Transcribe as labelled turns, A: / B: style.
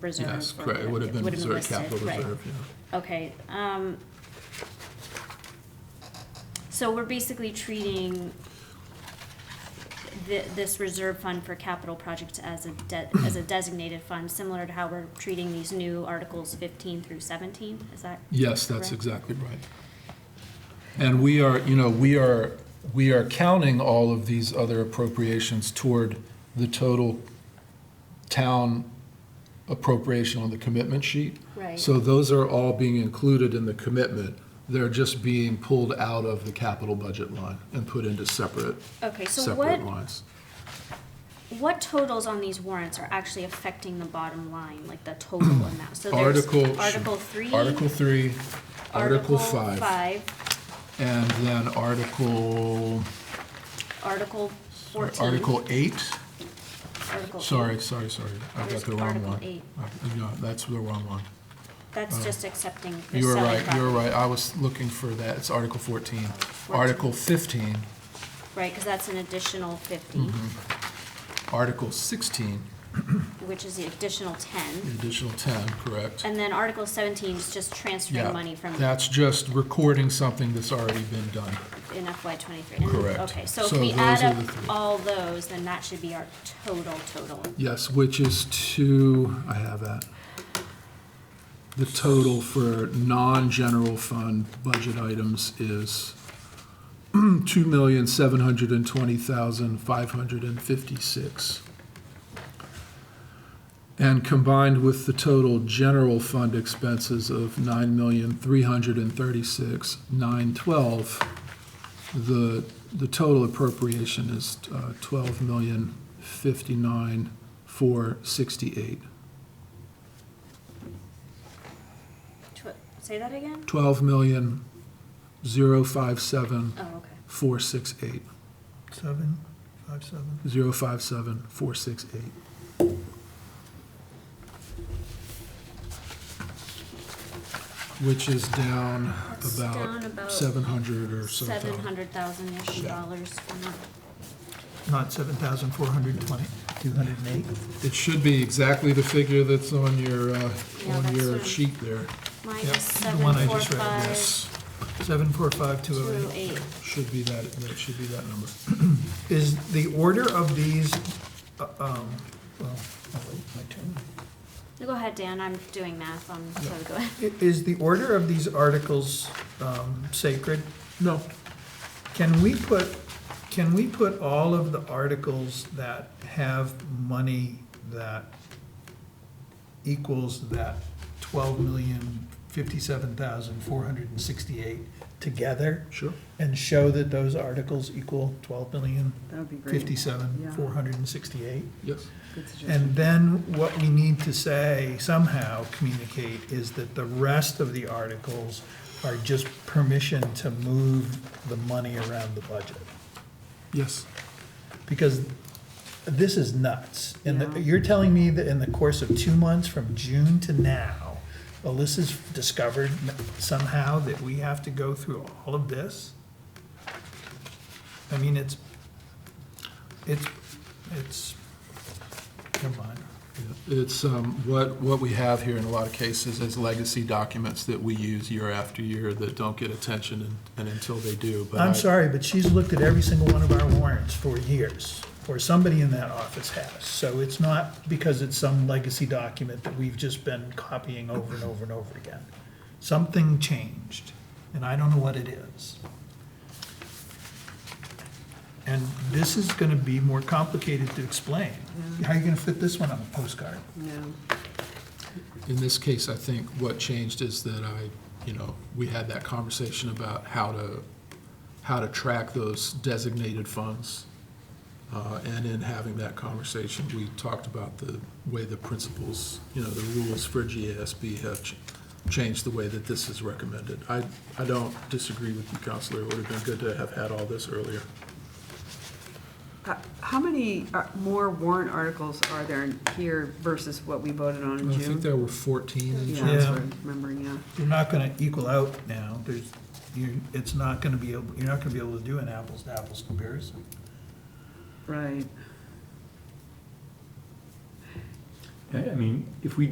A: reserve.
B: Yes,
A: or
B: correct, it would have been reserve
A: listed,
B: capital
A: right.
B: reserve, yeah.
A: Okay, um, so we're basically treating thi- this reserve fund for capital projects as a de- as a designated fund, similar to how we're treating these new articles fifteen through seventeen, is that?
B: Yes, that's
A: Correct.
B: exactly right. And we are, you know, we are, we are counting all of these other appropriations toward the total town appropriation on the commitment sheet.
A: Right.
B: So those are all being included in the commitment. They're just being pulled out of the capital budget line and put into separate,
A: Okay, so what,
B: separate lines.
A: what totals on these warrants are actually affecting the bottom line, like the total amount? So there's
B: Article.
A: Article three.
B: Article three, Article
A: Article
B: five,
A: five,
B: and then Article,
A: Article fourteen.
B: Article eight.
A: Article eight.
B: Sorry, sorry, sorry. I got
A: Where's
B: the wrong
A: Article
B: one.
A: eight?
B: I- Yeah, that's the wrong one.
A: That's just accepting the
B: Uh, You were
A: selling
B: right, you were
A: property.
B: right. I was looking for that. It's Article 14. Article 15,
A: Right, because that's an additional fifty,
B: Mm-hmm. Article 16,
A: which is the additional
B: the
A: ten.
B: additional 10, correct?
A: And then Article seventeen is just transferring
B: Yeah,
A: money from
B: That's just recording something that's already been done.
A: in FY twenty-three.
B: Correct.
A: Okay, so if
B: So
A: we
B: those
A: add
B: are
A: up
B: the three.
A: all those, then that should be our total, total.
B: Yes, which is to, I have that. The total for non-general fund budget items is two million, seven hundred and twenty thousand, five hundred and fifty-six. And combined with the total general fund expenses of nine million, three hundred and thirty-six, nine twelve, the, the total appropriation is uh, twelve million fifty-nine four sixty-eight.
A: Tw- Say that again?
B: Twelve million zero five seven
A: Oh, okay.
B: four six eight,
C: Seven, five, seven.
B: zero five seven four six eight. Which is down
A: That's down
B: about
A: about
B: seven hundred or so.
A: Seven
B: thousand.
A: hundred thousand-ish
B: Yeah.
A: dollars. from that.
C: Not seven thousand four hundred twenty, two hundred and eight.
B: It should be exactly the figure that's on your, uh,
A: Yeah,
B: on
A: that's what
B: your
A: I'm-
B: sheet there.
A: Mine
C: Yep,
A: is
C: the
A: seven,
C: one I
A: four,
C: just read,
A: five,
B: Yes,
C: Seven, four, five, two
A: two,
C: oh eight.
A: eight.
B: should be that, that should be that number.
C: Is the order of these, uh, um, well, I'll Oh, wait my turn.
A: No, Go ahead, Dan, I'm doing math on, so go ahead.
C: I- Is the order of these articles um, sacred?
B: No,
C: Can we put, can we put all of the articles that have money that equals that twelve million fifty-seven thousand four hundred and sixty-eight together?
B: sure.
C: And show that those articles equal twelve million
D: That would be great.
C: fifty-seven
D: Yeah.
C: four hundred and sixty-eight?
B: Yes.
D: Good suggestion.
C: And then what we need to say, somehow communicate, is that the rest of the articles are just permission to move the money around the budget.
B: Yes.
C: Because this is nuts. And the-
D: Yeah.
C: you're telling me that in the course of two months, from June to now, Alyssa's discovered somehow that we have to go through all of this? I mean, it's, it's, it's, never mind.
B: It's, um, what, what we have here in a lot of cases is legacy documents that we use year after year that don't get attention and- and until they do. but I-
C: I'm sorry, but she's looked at every single one of our warrants for years, or somebody in that office has. So it's not because it's some legacy document that we've just been copying over and over and over again. Something changed, and I don't know what it is. And this is gonna be more complicated to explain. How are you gonna fit this one on a postcard?
D: No.
B: In this case, I think what changed is that I, you know, we had that conversation about how to, how to track those designated funds. Uh, and in having that conversation, we talked about the way the principles, you know, the rules for GASB have ch- changed the way that this is recommended. I, I don't disagree with you, Counselor. It would have been good to have had all this earlier.
D: Uh, How many uh, more warrant articles are there here versus what we voted on in
B: I think
D: June?
B: there were 14 in
D: Yeah,
B: June.
D: that's
C: Yeah.
D: what I'm remembering, yeah.
C: You're not gonna equal out now. There's, you, it's not gonna be, able. you're not gonna be able to do an apples-to-apples comparison.
D: Right.
E: I I mean, if we did